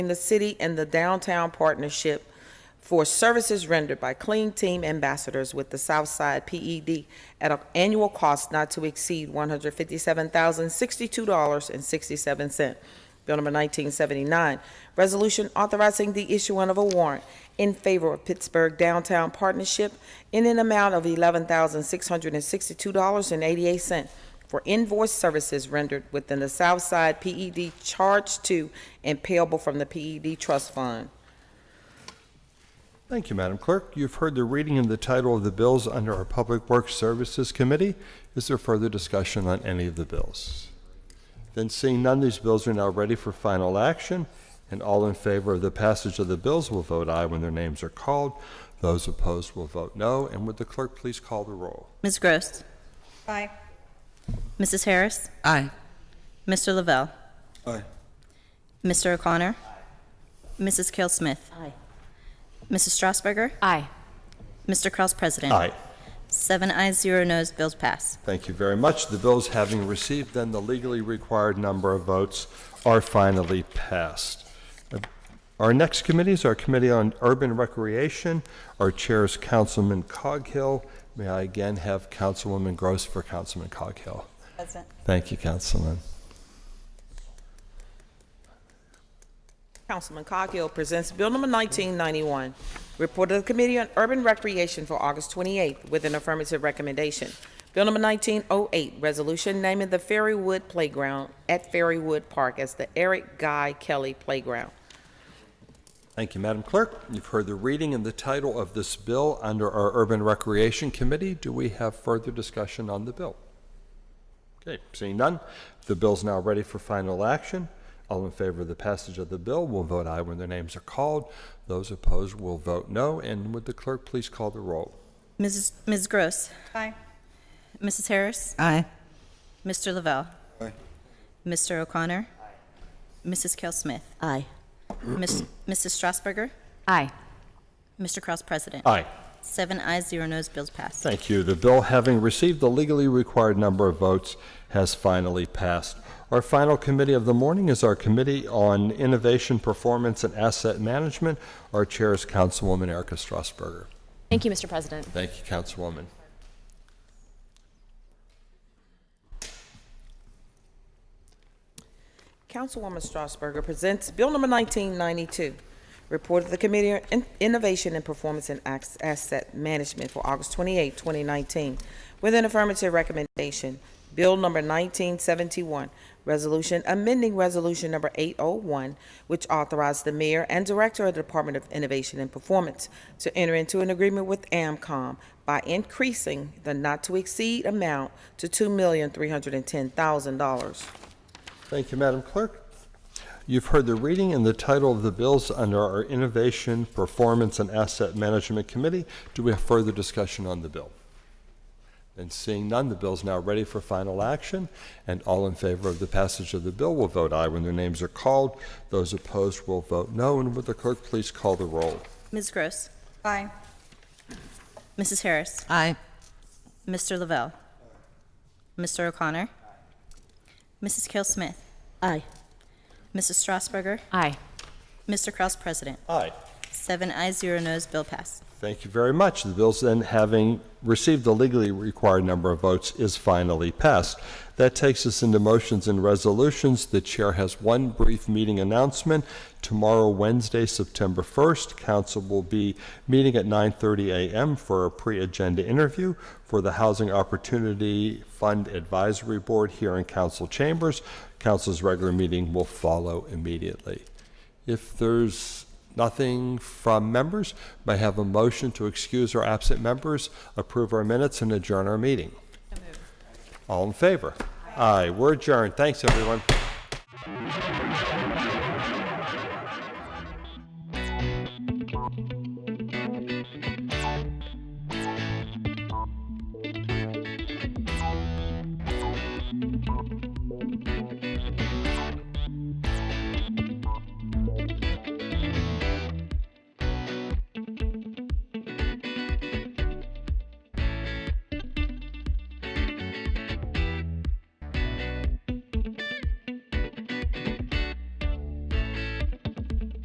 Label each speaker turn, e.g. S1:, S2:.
S1: between the city and the downtown partnership for services rendered by Clean Team Ambassadors with the Southside PED at an annual cost not to exceed $157,062.67. Bill number 1979, resolution authorizing the issuing of a warrant in favor of Pittsburgh Downtown Partnership in an amount of $11,662.88 for invoice services rendered within the Southside E PED charged to and payable from the PED Trust Fund.
S2: Thank you, Madam Clerk. You've heard the reading of the title of the bills under our Public Works Services Committee. Is there further discussion on any of the bills? Then seeing none, these bills are now ready for final action, and all in favor of the passage of the bills will vote aye when their names are called. Those opposed will vote no, and would the clerk please call the roll?
S3: Ms. Gross.
S4: Aye.
S3: Mrs. Harris.
S5: Aye.
S3: Mr. Lavelle.
S2: Aye.
S3: Mr. O'Connor. Mrs. Kell Smith. Aye. Mrs. Strasburger.
S5: Aye.
S3: Mr. Kraus, President.
S2: Aye.
S3: Seven ayes, zero noes, bills pass.
S2: Thank you very much. The bills having received then the legally required number of votes are finally passed. Our next committee is our Committee on Urban Recreation. Our chair is Councilman Coghill. May I again have Councilwoman Gross for Councilman Coghill?
S4: Present.
S2: Thank you, Councilman.
S1: Councilman Coghill presents Bill number 1991, Report of the Committee on Urban Recreation for August 28th with an affirmative recommendation. Bill number 1908, Resolution naming the Fairywood Playground at Fairywood Park as the Eric Guy Kelly Playground.
S2: Thank you, Madam Clerk. You've heard the reading and the title of this bill under our Urban Recreation Committee. Do we have further discussion on the bill? Okay, seeing none, the bill's now ready for final action. All in favor of the passage of the bill will vote aye when their names are called. Those opposed will vote no. And would the clerk please call the roll?
S3: Mrs. Ms. Gross.
S4: Aye.
S3: Mrs. Harris.
S5: Aye.
S3: Mr. Lavelle. Mr. O'Connor. Mrs. Kell Smith.
S5: Aye.
S3: Miss- Mrs. Strasburger.
S5: Aye.
S3: Mr. Kraus, President.
S2: Aye.
S3: Seven ayes, zero noes, bills pass.
S2: Thank you. The bill, having received the legally required number of votes, has finally passed. Our final committee of the morning is our Committee on Innovation, Performance, and Asset Management. Our chair is Councilwoman Erica Strasburger.
S5: Thank you, Mr. President.
S2: Thank you, Councilwoman.
S1: Councilwoman Strasburger presents Bill number 1992, Report of the Committee on In- Innovation and Performance and Ac- Asset Management for August 28, 2019, with an affirmative recommendation. Bill number 1971, Resolution amending Resolution number 801, which authorized the mayor and director of the Department of Innovation and Performance to enter into an agreement with AMCOM by increasing the not-to-exceed amount to $2,310,000.
S2: Thank you, Madam Clerk. You've heard the reading and the title of the bills under our Innovation, Performance, and Asset Management Committee. Do we have further discussion on the bill? And seeing none, the bill is now ready for final action, and all in favor of the passage of the bill will vote aye when their names are called. Those opposed will vote no, and would the clerk please call the roll?
S3: Ms. Gross.
S4: Aye.
S3: Mrs. Harris.
S5: Aye.
S3: Mr. Lavelle. Mr. O'Connor. Mrs. Kell Smith.
S5: Aye.
S3: Mrs. Strasburger.
S5: Aye.
S3: Mr. Kraus, President.
S2: Aye.
S3: Seven ayes, zero noes, bill passed.
S2: Thank you very much. The bill's then, having received the legally required number of votes, is finally passed. That takes us into motions and resolutions. The chair has one brief meeting announcement. Tomorrow, Wednesday, September 1st, council will be meeting at 9:30 a.m. for a pre-agenda interview for the Housing Opportunity Fund Advisory Board here in council chambers. Council's regular meeting will follow immediately. If there's nothing from members, may I have a motion to excuse our absent members, approve our minutes, and adjourn our meeting? All in favor? Aye, we're adjourned. Thanks, everyone.